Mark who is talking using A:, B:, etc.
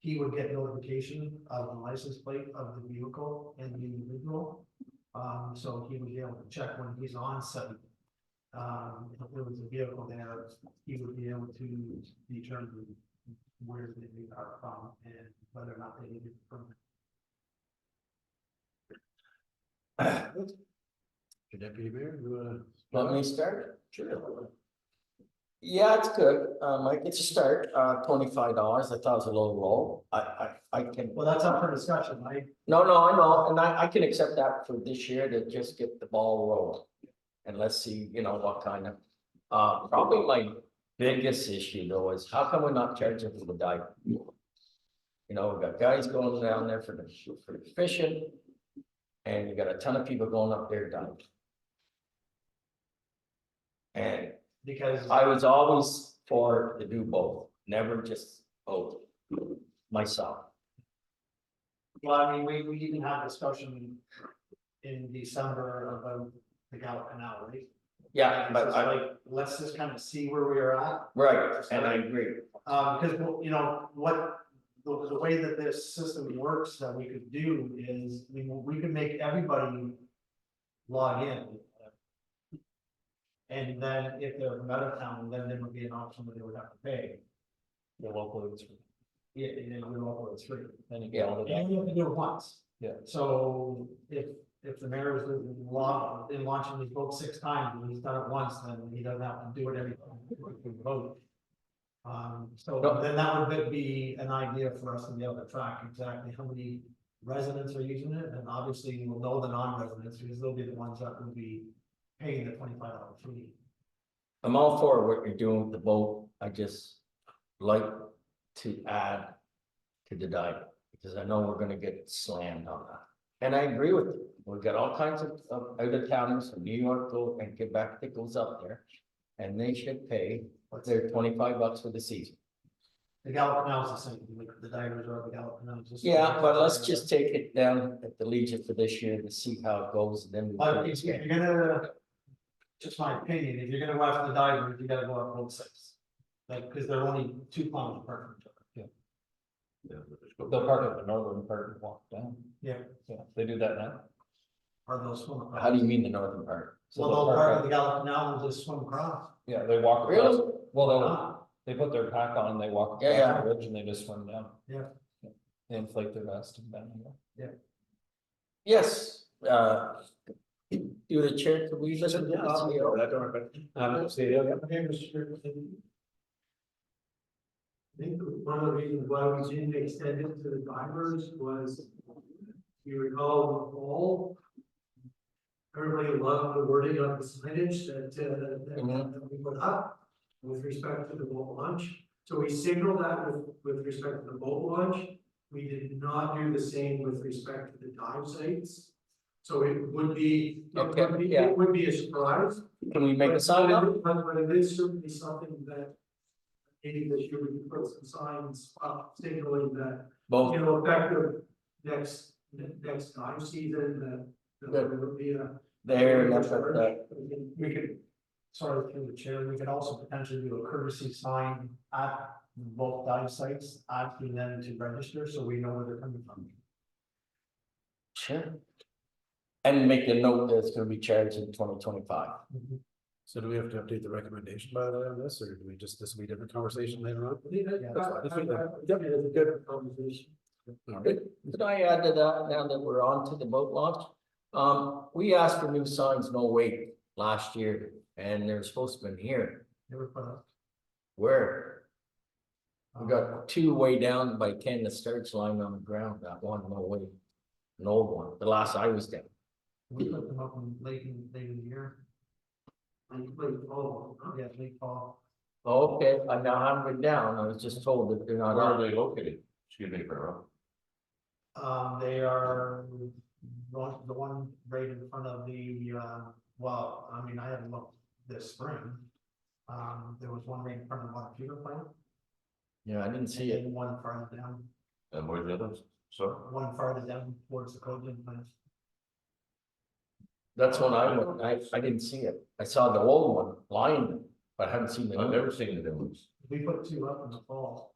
A: he would get notification of the license plate of the vehicle and the individual. Um, so he would be able to check when he's on site. Um, if there was a vehicle there, he would be able to determine where they are from and whether or not they need it from.
B: Deputy Mayor, you uh, wanna?
C: Want me to start?
B: Sure.
C: Yeah, it's good. Um, I get to start, uh, twenty-five dollars. I thought it was a little low. I, I, I can,
A: Well, that's up for discussion, I,
C: no, no, I know, and I, I can accept that for this year to just get the ball rolling. And let's see, you know, what kind of, uh, probably my biggest issue though is how come we're not charging for the dive? You know, we've got guys going down there for the, for the fishing. And you got a ton of people going up there diving. And
A: because.
C: I was always for to do both, never just both, myself.
A: Well, I mean, we, we even had discussion in December about the Gallup Canal, right?
C: Yeah,
A: And
C: but
A: it's
C: I,
A: Like, let's just kind of see where we are at,
C: right, and I agree,
A: um, because, you know, what, the, the way that this system works that we could do is, we, we could make everybody log in. And then if they're from out of town, then there would be an option that they would have to pay.
B: We'll upload it.
A: Yeah, and then we upload three.
B: Then you
C: Yeah.
B: get all of
A: You
B: that.
A: only have to do it once.
B: Yeah.
A: So if, if the mayor is in law, in launching these votes six times, and he's done it once, then he doesn't have to do it every time we vote. Um, so
C: No.
A: then that would be an idea for us to be able to track exactly how many residents are using it, and obviously we'll know the non-residents, because they'll be the ones that will be paying the twenty-five dollar fee.
C: I'm all for what you're doing with the boat, I just like to add. To the diet, because I know we're gonna get slammed on that, and I agree with you, we've got all kinds of, of out of towners from New York go and Quebec that goes up there. And they should pay their twenty-five bucks for the season.
A: The Gallup Canal is the same, like the divers are the Gallup Canal. it's just-
C: Yeah, but let's just take it down at the Legion for this year and see how it goes, and then. we
A: But if
C: can
A: if
C: expand.
A: you're gonna, just my opinion, if you're gonna go after the divers, you gotta go up road six. Like, cause they're only two miles apart from each other.
B: They'll park at the northern part and walk down.
A: Yeah.
B: Yeah, they do that now.
A: Are those swim
C: How
A: across?
C: do you mean the northern part?
B: So
A: Well,
B: they'll
A: they'll
B: park
A: part
B: at-
A: of the Gallup Canal will just swim across.
B: Yeah, they walk. across-
C: Really?
B: Well,
C: Oh.
B: they'll,
A: Ah,
B: they put their pack on, they walk
C: Yeah,
B: across the ridge and they just swim down.
A: Yeah.
B: They inflate their vest and down here.
C: Yes, uh. Do the chair, could we listen to audio?
D: I think one of the reasons why we didn't extend it to the divers was, if you recall, all. Everybody loved the wording on the signage that, uh,
C: Mm-hmm.
D: that- that we put up with respect to the boat launch. So we signaled that with, with respect to the boat launch. We did not do the same with respect to the dive sites. So it would be, it
C: Okay,
D: would be,
C: yeah.
D: it would be a surprise.
C: Can we make a
D: But-
C: sign
D: but
C: up?
D: it- But but it is certainly something that. Maybe this year we can put some signs up signaling that, you
C: Both,
D: know, effective next, ne- next time season, that. that
C: Yeah.
D: There would be a.
C: there, and that's what, uh,
A: We could, sorry, through the chair, we could also potentially do a courtesy sign at both dive sites, asking them to register, so we know where they're coming from.
C: sure. And make a note that it's gonna be charged in twenty twenty-five.
E: So do we have to update the recommendation by the way on this, or do we just, this will be a different conversation later on?
A: Yeah,
D: Good conversation.
E: All right.
C: Could I add to that, now that we're on to the boat launch? Um, we asked for new signs, no wait, last year, and they're supposed to be here.
A: Never put up.
C: Where? We got two way down by ten, the starts lying on the ground, that one, no way. An old one, the last I was down.
A: We put them up in late in, late in the year,
D: And you played all, huh?
A: yeah, late fall.
C: Okay, I now haven't been down, I was just told that they're not on.
F: they located? Excuse me, Pharaoh.
A: Um, they are, one- the one right in front of the, uh, well, I mean, I haven't looked this spring. Um, there was one right in front of one computer plant.
C: Yeah, I didn't see it.
A: and One farther down,
F: And Uh, where's the others? So,
A: one farther down towards the Cogen plant.
C: That's when I went, I, I didn't see it. I saw the old one lying, but I haven't seen the new
F: I've
C: one.
F: never seen the new ones.
A: We put two up in the fall.